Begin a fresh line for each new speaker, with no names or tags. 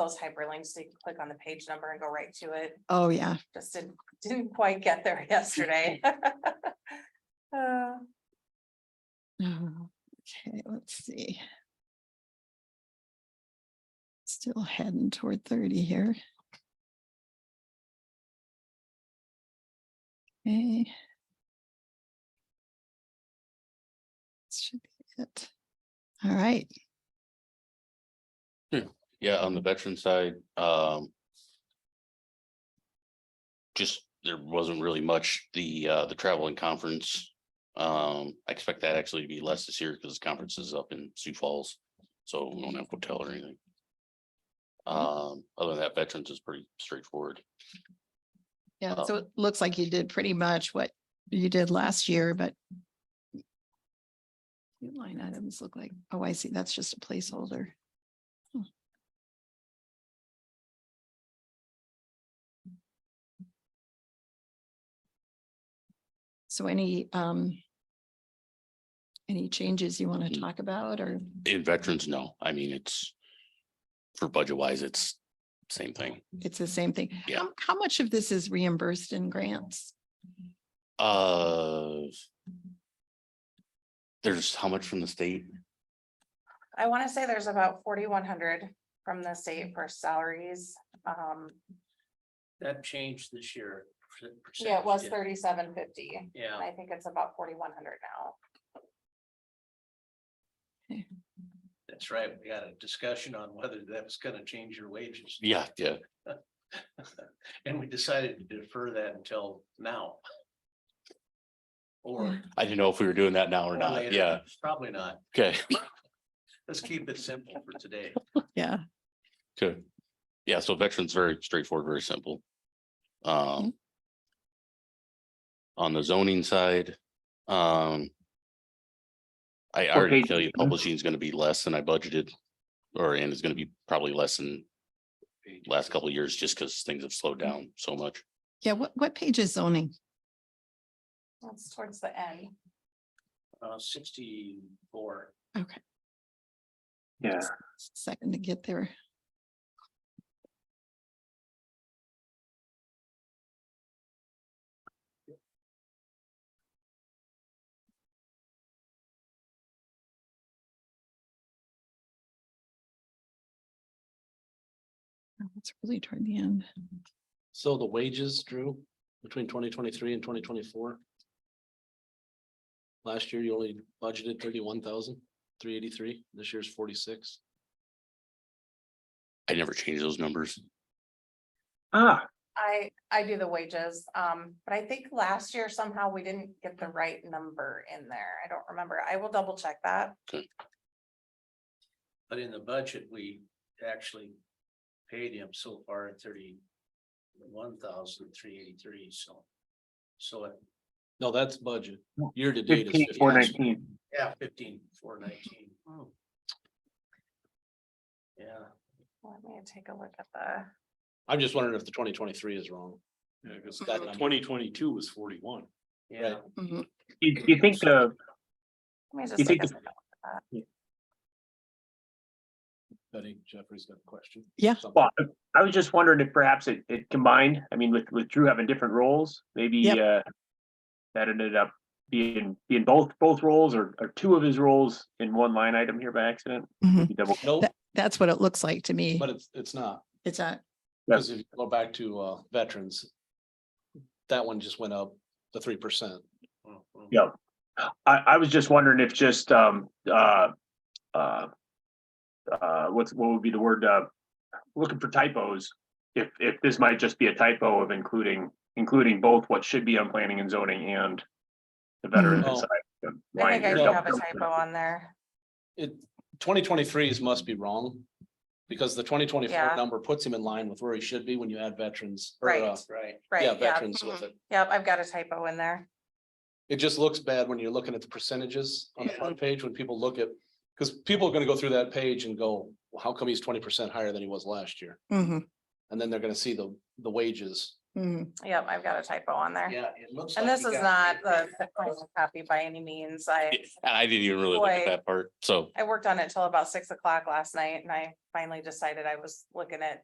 those hyperlinks, so you can click on the page number and go right to it.
Oh, yeah.
Just didn't, didn't quite get there yesterday. Uh,
Oh, Okay, let's see. Still heading toward thirty here. Okay. This Should be it. All right,
Yeah, on the veteran side, um. Just, there wasn't really much, the, uh, the travel and conference. Um, I expect that actually to be less this year because the conference is up in Sioux Falls, so we don't have hotel or anything. Um, other than that, veterans is pretty straightforward.
yeah,
Oh.
so it looks like you did pretty much what you did last year, but few line items look like, oh, I see, that's just a placeholder. Hmm. So any, um, any changes you want to
Mm.
talk about or,
In veterans, no, I mean, it's. For budget wise, it's same thing.
it's the same thing?
Yeah.
How- How much of this is reimbursed in grants?
Uh. There's how much from the state?
I want to say there's about forty-one hundred from the state for salaries. Um,
That changed this year. per-
yeah, it was
percentage,
thirty-seven fifty.
Yeah,
I think it's about forty-one hundred now.
that's right. We got a discussion on whether that was gonna change your wages.
Yeah, yeah,
And we decided to defer that until now. Or.
Yeah.
I didn't know if we were doing that now or
or
not,
later.
yeah,
Probably not.
okay.
Let's keep it simple for today.
Yeah.
Good. Yeah, so veterans very straightforward, very simple. Um. On the zoning side, um. I I already
page
tell you
is that?
publishing is gonna be less than I budgeted. Or and is gonna be probably less than last couple of years, just because things have slowed down so much.
Yeah, what, what page is zoning?
That's towards the end.
Uh, sixty-four.
Okay,
Yeah,
second to get there. Oh, That's really toward the end.
So the wages, Drew, between twenty twenty-three and twenty twenty-four? Last year you only budgeted thirty-one thousand, three eighty-three, this year's forty-six.
I never changed those numbers.
ah,
I, I do the wages, um, but I think last year somehow we didn't get the right number in there. I don't remember. I will double check that.
But in the budget, we actually paid him so far at thirty-one thousand three eighty-three, so. So, it-
No, that's budget. Year to date
fifteen,
is
four
56.
nineteen.
yeah, fifteen, four nineteen. Oh. Yeah.
Let me take a look at the.
I'm just wondering if the twenty twenty-three is wrong.
Yeah, because
That number.
twenty twenty-two was forty-one.
Yeah,
Mhm.
You, you think uh, the,
Let me just
You
take
think
a
it's-
second.
Betty Jeffrey's got a question.
Yeah.
Something.
well, I was just wondering if perhaps it, it combined, I mean, with, with Drew having different roles, maybe,
Yep.
uh, that ended up being, being both, both roles or, or two of his roles in one line item here by accident.
Mhm.
You double-
No,
That- That's what it looks like to me.
but it's, it's not,
It's not,
Yeah.
because if you go back to, uh, veterans. That one just went up the three percent.
Mm, mm.
Yeah. I, I was just wondering if just, um, uh, uh, uh, what's, what would be the word, uh, looking for typos? If, if this might just be a typo of including, including both what should be on planning and zoning and the veteran
Mhm.
side. of the
I
line
think I
here.
do
no.
have a typo on there.
it, twenty twenty-threes must be wrong. Because the twenty
Yeah.
twenty-four number puts him in line with where he should be when you add veterans. or,
Right.
uh,
Right.
Yeah,
Right, yeah. Mm-hmm.
veterans with it.
Yep, I've got a typo in there.
It just looks bad when you're looking at the percentages on the
Yeah.
front page when people look at, because people are gonna go through that page and go, well, how come he's twenty percent higher than he was last year?
Mhm.
And then they're gonna see the, the wages
Mhm.
Yep, I've got a typo on there.
Yeah, it looks.
And
like
this
you
is not
got-
the the final copy by any means. I,
And I didn't even really look
Boy.
at that part, so.
I worked on it till about six o'clock last night and I finally decided I was looking at